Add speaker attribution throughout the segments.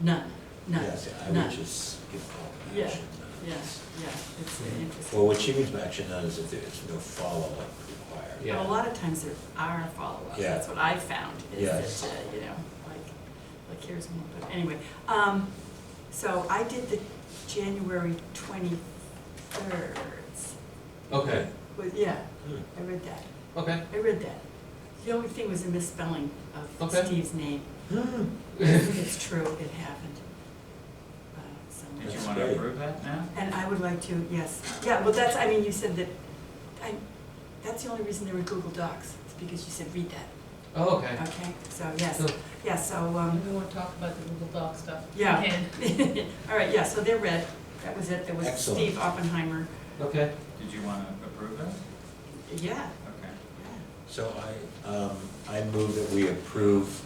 Speaker 1: None, none,
Speaker 2: Yes, I
Speaker 1: none.
Speaker 2: would just give all
Speaker 1: Yeah.
Speaker 2: action.
Speaker 1: Yes, yeah, it's interesting.
Speaker 2: Mm-hmm. Well, what she means by action none is if there's no follow-up required.
Speaker 1: But
Speaker 3: Yeah.
Speaker 1: a lot of times there are follow-ups,
Speaker 2: Yeah.
Speaker 1: that's what I found, is
Speaker 2: Yes.
Speaker 1: that, uh, you know, like, like here's one, but anyway. Um, so I did the January twenty-third,
Speaker 3: Okay,
Speaker 1: was, yeah,
Speaker 2: Hmm.
Speaker 1: I read that,
Speaker 3: okay.
Speaker 1: I read that. The only thing was a misspelling of
Speaker 3: Okay.
Speaker 1: Steve's name,
Speaker 2: Hmm.
Speaker 1: it's true, it happened. Uh, so-
Speaker 4: Did you
Speaker 2: That's
Speaker 4: want to
Speaker 2: great.
Speaker 4: approve that now?
Speaker 1: And I would like to, yes, yeah, well, that's, I mean, you said that, I, that's the only reason there were Google Docs, is because you said read that,
Speaker 3: Oh, okay.
Speaker 1: okay? So, yes,
Speaker 3: So-
Speaker 1: yeah, so, um,
Speaker 5: We won't talk about the Google Doc stuff.
Speaker 1: Yeah.
Speaker 5: Again.
Speaker 1: all right, yeah, so they're red, that was it, there was
Speaker 2: Excellent.
Speaker 1: Steve Oppenheimer,
Speaker 3: Okay,
Speaker 4: Did you want to approve that?
Speaker 1: yeah,
Speaker 4: Okay.
Speaker 1: yeah,
Speaker 2: So I, um, I move that we approve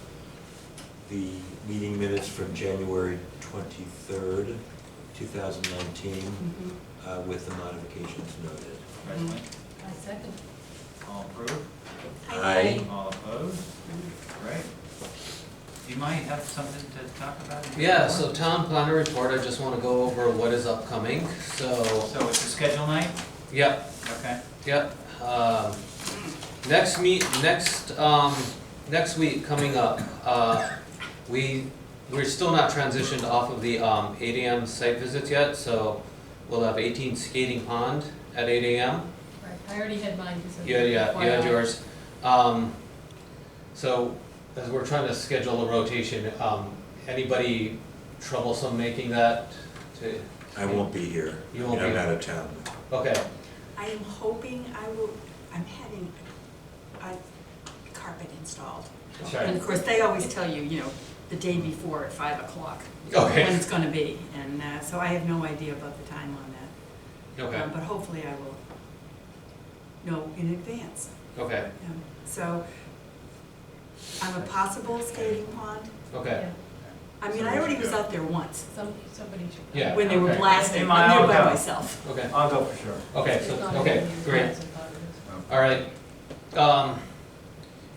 Speaker 2: the meeting minutes from January twenty-third, two thousand nineteen,
Speaker 1: mhm,
Speaker 2: uh, with the modifications noted.
Speaker 4: Leslie,
Speaker 5: I second.
Speaker 3: Mm-hmm.
Speaker 4: all approved?
Speaker 2: Aye.
Speaker 4: All opposed? Great. You might have something to talk about? in your
Speaker 3: yeah, so
Speaker 4: report?
Speaker 3: town planner report, I just wanna go over what is upcoming, so,
Speaker 4: So it's a schedule night?
Speaker 3: yep,
Speaker 4: Okay.
Speaker 3: Yep, um, next meet, next, um, next week coming up, uh, we, we're still not transitioned off of the, um, eight AM site visits yet, so we'll have eighteen skating pond at eight AM.
Speaker 5: Right, I already had mine, just. as
Speaker 3: Yeah, yeah, you had
Speaker 5: FYI.
Speaker 3: yours. Um, so, as we're trying to schedule a rotation, um, anybody troublesome making that to,
Speaker 2: I won't be here.
Speaker 3: You won't be
Speaker 2: I'm
Speaker 3: here.
Speaker 2: out of town.
Speaker 3: okay,
Speaker 1: I am hoping I will, I'm having a carpet installed. And
Speaker 3: sorry,
Speaker 1: of course, they always tell you, you know, the day before at five o'clock,
Speaker 3: okay,
Speaker 1: when it's gonna be, and, uh, so I have no idea about the time on that.
Speaker 3: okay,
Speaker 1: Um, But hopefully I will know in advance.
Speaker 3: okay,
Speaker 1: Um, So I'm a possible skating pond.
Speaker 3: okay,
Speaker 5: Yeah,
Speaker 1: I mean, I already was out there once
Speaker 5: some, somebody should. go.
Speaker 3: Yeah.
Speaker 1: when they were
Speaker 4: Okay.
Speaker 1: blasting.
Speaker 4: Am I
Speaker 1: I'm there
Speaker 4: all
Speaker 1: by
Speaker 4: go?
Speaker 1: myself.
Speaker 3: okay,
Speaker 4: I'll go for sure.
Speaker 3: okay,
Speaker 5: It's
Speaker 3: so,
Speaker 5: not
Speaker 3: okay,
Speaker 5: in your
Speaker 3: great.
Speaker 5: plans, I thought it was.
Speaker 3: All right, um,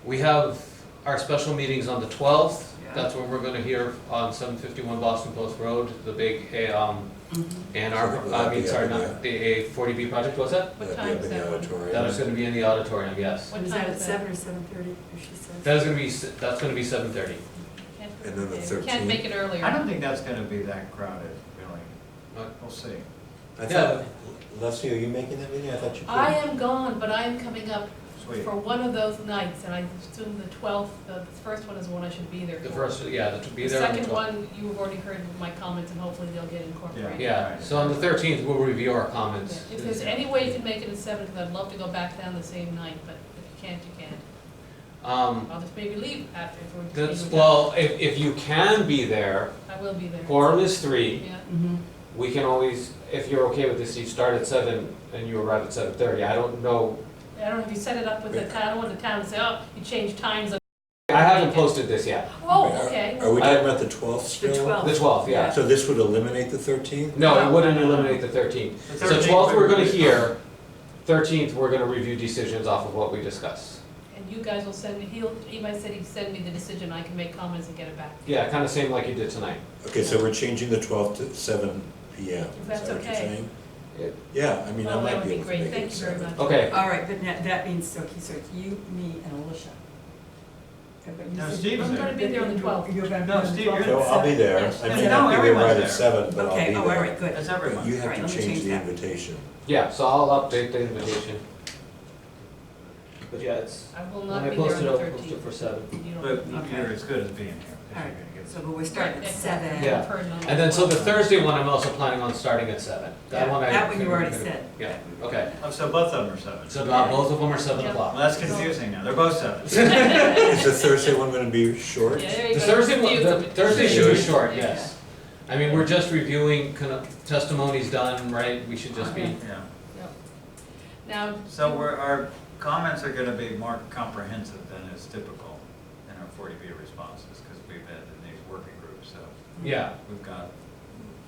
Speaker 3: we have our special meetings on the twelfth.
Speaker 1: Yeah.
Speaker 3: That's when we're gonna hear on seven fifty-one Boston Post Road, the big, eh, um,
Speaker 1: Mhm.
Speaker 3: and our,
Speaker 2: Will that
Speaker 3: I mean,
Speaker 2: be
Speaker 3: sorry,
Speaker 2: up in
Speaker 3: not the A forty B project, was that?
Speaker 2: That'd be
Speaker 5: What time
Speaker 2: up
Speaker 5: is
Speaker 2: in the
Speaker 5: that one?
Speaker 2: auditorium.
Speaker 3: That is gonna be in the auditorium, yes.
Speaker 5: What
Speaker 1: Is
Speaker 5: time
Speaker 1: that at
Speaker 5: is that?
Speaker 1: seven or seven thirty, or she says?
Speaker 3: That is gonna be, s- that's gonna be seven thirty.
Speaker 5: Can't
Speaker 2: And then the
Speaker 5: make it- Can't make it earlier.
Speaker 4: I don't think that's going to be that crowded, really.
Speaker 3: What?
Speaker 4: We'll see.
Speaker 2: I
Speaker 3: Yeah.
Speaker 2: thought, Leslie, are you making that meeting? I thought you could.
Speaker 5: I am gone, but I am coming up
Speaker 4: Sweet.
Speaker 5: for one of those nights, and I assume the twelfth, the first one is the one I should be there for.
Speaker 3: The first, yeah, that should be
Speaker 5: The
Speaker 3: there on the
Speaker 5: second
Speaker 3: twelfth.
Speaker 5: one, you have already heard my comments, and hopefully they'll get incorporated.
Speaker 3: Yeah, so on the thirteenth, we'll review our
Speaker 5: Yeah,
Speaker 3: comments.
Speaker 5: If there's any way you can make it at seven, because I'd love to go back down the same night, but if you can't, you can't.
Speaker 3: Um,
Speaker 5: I'll just maybe leave after if we're.
Speaker 3: that's,
Speaker 5: leaving.
Speaker 3: well, if, if you can be there,
Speaker 5: I will be there.
Speaker 3: quorum is three.
Speaker 5: Yeah,
Speaker 1: Mhm.
Speaker 3: We can always, if you're okay with this, you start at seven and you arrive at seven thirty. I don't know.
Speaker 5: I don't know if you set it up with the town, I don't want the town to say, oh, you changed times. on-"
Speaker 3: I haven't posted this yet.
Speaker 5: Oh,
Speaker 2: Are-
Speaker 5: okay.
Speaker 2: Are we talking about the twelfth still?
Speaker 1: The
Speaker 5: Oh.
Speaker 1: twelfth.
Speaker 3: The twelfth, yeah.
Speaker 2: So this would eliminate the thirteenth?
Speaker 3: No, it wouldn't eliminate the thirteenth.
Speaker 4: The
Speaker 3: So
Speaker 4: 13th
Speaker 3: twelfth, we're gonna
Speaker 4: would be-
Speaker 3: hear. Thirteenth, we're gonna review decisions off of what we discuss.
Speaker 5: And you guys will send me, he'll, Eli said he'd send me the decision, I can make comments and get it back.
Speaker 3: Yeah, kinda same like you did tonight.
Speaker 2: Okay, so we're changing the twelfth to seven P M.
Speaker 5: If that's okay.
Speaker 3: Yeah.
Speaker 2: Yeah, I mean, I
Speaker 5: Oh, that
Speaker 2: might
Speaker 5: would
Speaker 2: be
Speaker 5: be
Speaker 2: able to
Speaker 5: great.
Speaker 2: make it
Speaker 5: Thank you very
Speaker 2: seven.
Speaker 5: much.
Speaker 3: Okay,
Speaker 1: All right, but that, that means, so, okay, so it's you, me, and Alicia. But you
Speaker 4: No,
Speaker 1: said-
Speaker 4: Steve's
Speaker 5: I'm gonna be there on the twelfth.
Speaker 1: You're gonna be
Speaker 4: No,
Speaker 1: on the
Speaker 4: Steve,
Speaker 1: 12th?
Speaker 4: you're-
Speaker 2: So I'll be there,
Speaker 5: Yes,
Speaker 2: I
Speaker 1: no,
Speaker 2: may not be there
Speaker 4: everyone's
Speaker 2: right
Speaker 4: there.
Speaker 2: at seven, but I'll be
Speaker 1: Okay,
Speaker 2: there.
Speaker 1: oh, all right, good.
Speaker 4: That's
Speaker 2: But
Speaker 4: everyone.
Speaker 2: you
Speaker 1: Right,
Speaker 2: have
Speaker 1: let
Speaker 2: to
Speaker 1: me
Speaker 2: change
Speaker 1: change
Speaker 2: the
Speaker 1: that.
Speaker 2: invitation.
Speaker 3: yeah, so I'll update the invitation. But yeah, it's,
Speaker 5: I will
Speaker 3: when
Speaker 5: not
Speaker 3: I
Speaker 5: be there on
Speaker 3: posted,
Speaker 5: the
Speaker 3: I'll post it
Speaker 5: thirteenth.
Speaker 3: for seven.
Speaker 4: But
Speaker 1: Okay.
Speaker 4: you're as good as being here. 'cause
Speaker 1: All right.
Speaker 4: you're gonna get-
Speaker 1: So, but we're starting at seven.
Speaker 3: Yeah. And then, so the Thursday one, I'm also planning on starting at seven. That
Speaker 1: Yeah,
Speaker 3: one I.
Speaker 1: that one you already
Speaker 3: figured-
Speaker 1: said.
Speaker 3: Yeah, okay.
Speaker 4: Oh, so both of them are seven.
Speaker 3: So uh, both of them are seven
Speaker 5: Yeah.
Speaker 3: o'clock.
Speaker 4: Well, that's confusing now. They're both seven.
Speaker 2: Is the Thursday one gonna be short?
Speaker 5: Yeah, there you
Speaker 3: The
Speaker 5: go.
Speaker 3: Thursday, one-
Speaker 5: Confuse
Speaker 3: the
Speaker 5: them.
Speaker 3: Thursday should be short,
Speaker 5: Yeah.
Speaker 3: yes. I mean, we're just reviewing kind of testimonies done, right? We should just be,
Speaker 4: Yeah.
Speaker 5: Yep. Now.
Speaker 4: So we're, our comments are gonna be more comprehensive than is typical in our forty B responses, because we've been in these working groups, so
Speaker 3: yeah,
Speaker 4: we've got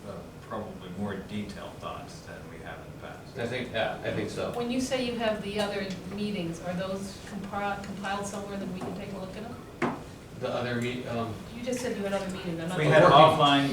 Speaker 4: uh, probably more detailed thoughts than we have in the past.
Speaker 3: I think, yeah, I think so.
Speaker 5: When you say you have the other meetings, are those compri- compiled somewhere that we can take a look at them? the other meet, um,
Speaker 3: You just said you had other meetings, I'm not.
Speaker 4: We
Speaker 3: sure.
Speaker 4: had
Speaker 5: Working.
Speaker 4: offline